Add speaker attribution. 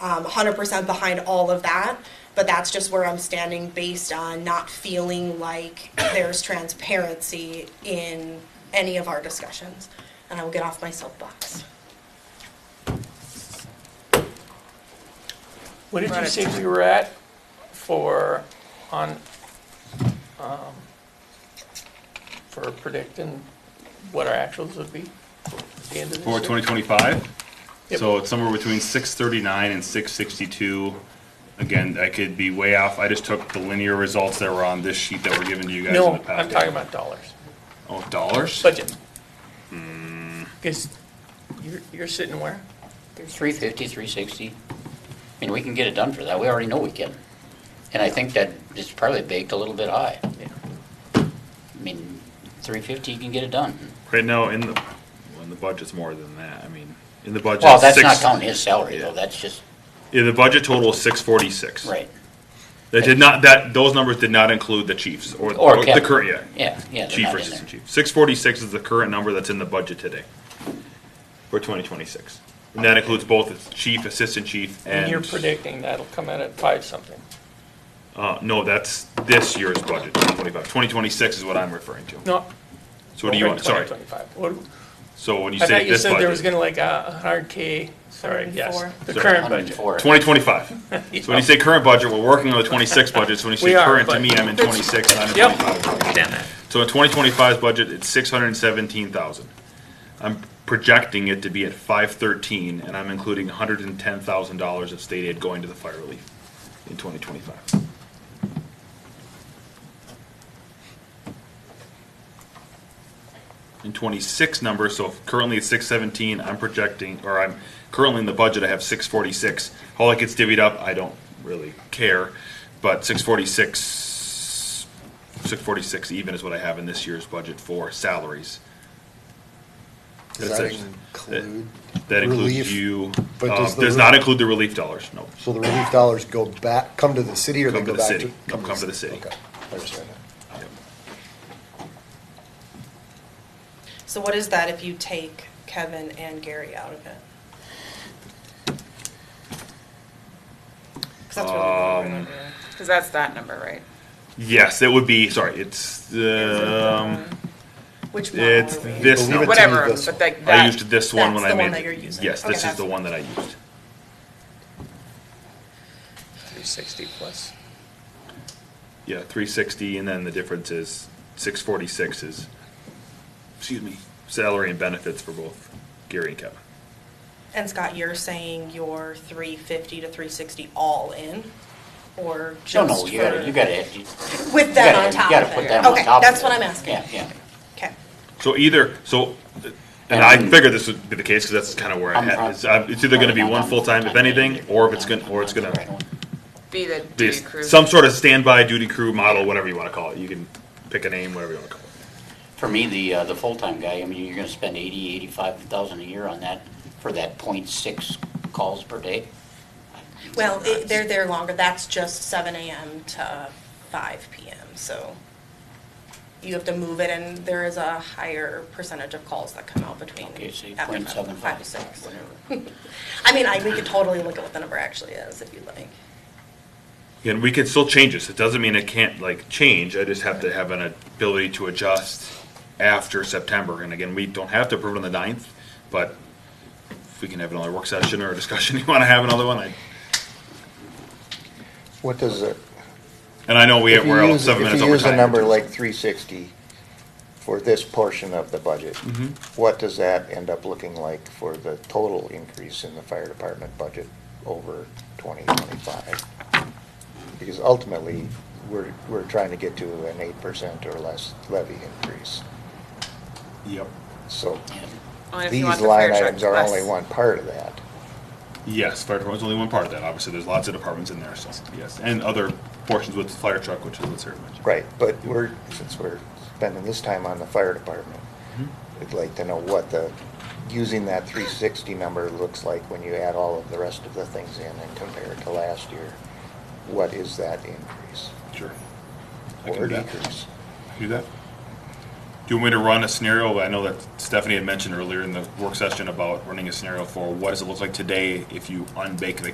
Speaker 1: um, 100% behind all of that. But that's just where I'm standing based on not feeling like there's transparency in any of our discussions. And I will get off my soapbox.
Speaker 2: What did you
Speaker 3: Right.
Speaker 2: say we were at for, on, um, for predicting what our actuals would be? at the end of this
Speaker 4: For
Speaker 2: year?
Speaker 4: 2025?
Speaker 2: Yep.
Speaker 4: So it's somewhere between 639 and 662. Again, I could be way off. I just took the linear results that were on this sheet that were given to you guys in
Speaker 2: No,
Speaker 4: the
Speaker 2: I'm
Speaker 4: past.
Speaker 2: talking about dollars,
Speaker 4: Oh, dollars?
Speaker 2: budget.
Speaker 5: Hmm.
Speaker 2: Because you're, you're sitting where?
Speaker 6: 350, 360. I mean, we can get it done for that. We already know we can. And I think that it's probably baked a little bit high.
Speaker 2: Yeah.
Speaker 6: I mean, 350, you can get it done.
Speaker 5: Right now, in the, well, in the budget's more than that, I mean, in the budget.
Speaker 6: Well, that's not
Speaker 5: six-
Speaker 6: counting his salary though.
Speaker 5: Yeah.
Speaker 6: That's just,
Speaker 5: Yeah, the budget total is six forty-six.
Speaker 6: right.
Speaker 5: That did not, that, those numbers did not include the chiefs or, or
Speaker 6: Or
Speaker 5: the
Speaker 6: Kevin.
Speaker 5: current, yeah.
Speaker 6: Yeah, yeah, they're
Speaker 5: Chief
Speaker 6: not
Speaker 5: or
Speaker 6: in there.
Speaker 5: assistant chief. Six forty-six is the current number that's in the budget today for twenty twenty-six. And that includes both the chief, assistant chief,
Speaker 2: And you're
Speaker 5: and,
Speaker 2: predicting that'll come in at five something.
Speaker 5: uh, no, that's this year's budget, twenty twenty-five. Twenty twenty-six is what I'm referring to.
Speaker 2: No.
Speaker 5: So what do you want, sorry,
Speaker 2: 2025. What-
Speaker 5: so when you
Speaker 2: I
Speaker 5: say
Speaker 2: thought you
Speaker 5: this
Speaker 2: said there was
Speaker 5: budget,
Speaker 2: gonna like a hundred K, sorry, yes,
Speaker 1: 104.
Speaker 2: the
Speaker 5: Sorry.
Speaker 2: current budget.
Speaker 6: 104.
Speaker 5: twenty twenty-five. So when you say current budget, we're working on the twenty-six budget, so when you
Speaker 2: We
Speaker 5: say
Speaker 2: are,
Speaker 5: current, to
Speaker 2: but-
Speaker 5: me, I'm in twenty-six, and I'm in
Speaker 2: Yep.
Speaker 5: twenty-five.
Speaker 2: Understand that.
Speaker 5: So in 2025's budget, it's 617,000. I'm projecting it to be at 513, and I'm including $110,000 of state aid going to the fire relief in 2025. In 26 number, so if currently it's 617, I'm projecting, or I'm, currently in the budget, I have 646. How that gets divvied up, I don't really care, but 646 six forty-six even is what I have in this year's budget for salaries.
Speaker 7: Does
Speaker 5: That's
Speaker 7: that
Speaker 5: it.
Speaker 7: include?
Speaker 5: That
Speaker 7: relief?
Speaker 5: includes you,
Speaker 7: but
Speaker 5: um,
Speaker 7: does the
Speaker 5: does not
Speaker 7: re-
Speaker 5: include the relief dollars, no.
Speaker 7: So the relief dollars go back, come to the city or they
Speaker 5: Come to
Speaker 7: go
Speaker 5: the
Speaker 7: back to?
Speaker 5: city. No, come to the city.
Speaker 7: Okay, I understand that.
Speaker 1: So what is that if you take Kevin and Gary out of it? 'Cause that's really what I'm
Speaker 5: Um,
Speaker 1: remembering.
Speaker 3: Because that's that number, right?
Speaker 5: Yes, it would be, sorry, it's, um,
Speaker 1: Which one
Speaker 5: it's
Speaker 1: are we?
Speaker 5: this
Speaker 7: Believe it
Speaker 5: number.
Speaker 7: to-
Speaker 3: Whatever,
Speaker 7: this
Speaker 3: but
Speaker 7: one.
Speaker 3: like
Speaker 5: I
Speaker 3: that,
Speaker 5: used this one
Speaker 1: That's
Speaker 5: when I
Speaker 1: the one
Speaker 5: made.
Speaker 1: that you're using.
Speaker 5: Yes,
Speaker 1: Okay,
Speaker 5: this is
Speaker 1: that's-
Speaker 5: the one that I used.
Speaker 2: Three sixty plus.
Speaker 5: Yeah, three sixty, and then the difference is six forty-six is, excuse me, salary and benefits for both Gary and Kevin.
Speaker 1: And Scott, you're saying you're 350 to 360 all in? Or
Speaker 6: No,
Speaker 1: just
Speaker 6: no, you
Speaker 1: for-
Speaker 6: gotta, you gotta. you
Speaker 1: With that
Speaker 6: gotta-
Speaker 1: on top
Speaker 6: You gotta
Speaker 1: of
Speaker 6: put
Speaker 1: it.
Speaker 6: that on
Speaker 1: Okay,
Speaker 6: top of
Speaker 1: that's
Speaker 6: it.
Speaker 1: what I'm asking.
Speaker 6: Yeah, yeah.
Speaker 1: Okay.
Speaker 5: So either, so, and
Speaker 6: And-
Speaker 5: I figured this would be the case, because that's kind of where I'm
Speaker 6: I'm-
Speaker 5: at.
Speaker 6: I'm-
Speaker 5: It's uh, it's either gonna be
Speaker 6: I'm
Speaker 5: one
Speaker 6: not-
Speaker 5: full-time, if
Speaker 6: I'm not-
Speaker 5: anything, or if it's gonna, or it's
Speaker 6: Right
Speaker 5: gonna
Speaker 6: on.
Speaker 3: be the
Speaker 5: be
Speaker 3: duty crew.
Speaker 5: some sort of standby duty crew model, whatever you wanna call it. You can pick a name, whatever you wanna call it.
Speaker 6: For me, the, uh, the full-time guy, I mean, you're gonna spend eighty, eighty-five thousand a year on that for that point six calls per day.
Speaker 1: Well, it- they're there longer. That's just 7 AM to 5 PM, so you have to move it, and there is a higher percentage of calls that come out between
Speaker 6: Okay, so you
Speaker 1: after
Speaker 6: point seven
Speaker 1: five
Speaker 6: five,
Speaker 1: to six.
Speaker 6: whatever.
Speaker 1: I mean, I, we could totally look at what the number actually is, if you like.
Speaker 5: And we can still change this. It doesn't mean it can't, like, change. I just have to have an ability to adjust after September. And again, we don't have to approve it on the ninth, but if we can have another work session or a discussion, you wanna have another one, I,
Speaker 8: What does it?
Speaker 5: and I know we,
Speaker 8: if you
Speaker 5: we're all
Speaker 8: use-
Speaker 5: seven minutes
Speaker 8: If
Speaker 5: over
Speaker 8: you
Speaker 5: time.
Speaker 8: use a number like three sixty for this portion of the budget,
Speaker 5: Mm-hmm.
Speaker 8: what does that end up looking like for the total increase in the fire department budget over twenty twenty-five? Because ultimately, we're, we're trying to get to an eight percent or less levy increase.
Speaker 5: Yep.
Speaker 8: So
Speaker 3: Only if you want
Speaker 8: these
Speaker 3: the fire
Speaker 8: line
Speaker 3: truck
Speaker 8: items are
Speaker 3: less.
Speaker 8: only one part of that.
Speaker 5: Yes, fire department's only one part of that, obviously, there's lots of departments in there, so, yes, and other portions with fire truck, which is what Sarah mentioned.
Speaker 8: Right, but we're, since we're spending this time on the fire department,
Speaker 5: Mm-hmm.
Speaker 8: we'd like to know what the, using that three sixty number looks like when you add all of the rest of the things in and compare it to last year. What is that increase
Speaker 5: Sure. I can
Speaker 8: or
Speaker 5: do that.
Speaker 8: decrease?
Speaker 5: Do that? Do you want me to run a scenario, I know that Stephanie had mentioned earlier in the work session about running a scenario for what does it look like today if you unbake the